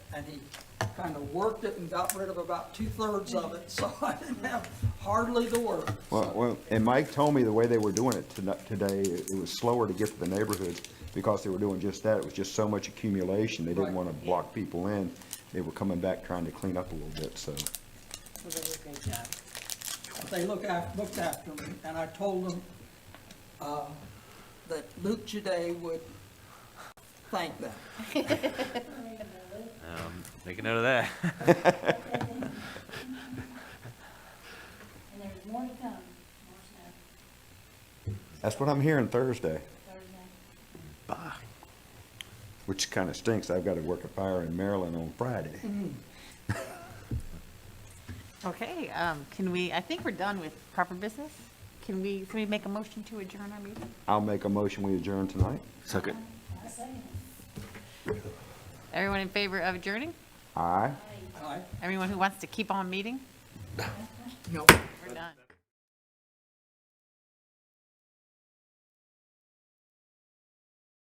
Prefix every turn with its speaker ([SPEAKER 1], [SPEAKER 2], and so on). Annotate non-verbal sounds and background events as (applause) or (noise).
[SPEAKER 1] and he kind of worked it and got rid of about two-thirds of it, (laughs) so I didn't have hardly the work.
[SPEAKER 2] Well, well, and Mike told me the way they were doing it tonight, today, it it was slower to get to the neighborhoods because they were doing just that. It was just so much accumulation. They didn't
[SPEAKER 1] Right.
[SPEAKER 2] want to block people in. They were coming back trying to clean up a little bit, so.
[SPEAKER 3] Well, they did a great job.
[SPEAKER 1] They look af, looked after me, and I told them, uh, that Luke Today would thank them.
[SPEAKER 4] Um, Make a note of that.
[SPEAKER 3] (laughs) And there's more to come, more snow,
[SPEAKER 2] That's what I'm hearing Thursday,
[SPEAKER 3] Thursday.
[SPEAKER 2] which kind of stinks. I've got to work a fire in Maryland on Friday.
[SPEAKER 5] Okay, um, can we, I think we're done with proper business. Can we, can we make a motion to adjourn our meeting?
[SPEAKER 2] I'll make a motion, we adjourn tonight.
[SPEAKER 4] Second.
[SPEAKER 5] Everyone in favor of adjourning?
[SPEAKER 2] Aye.
[SPEAKER 1] I,
[SPEAKER 5] Everyone who wants to keep on meeting?
[SPEAKER 1] you know,
[SPEAKER 5] We're done.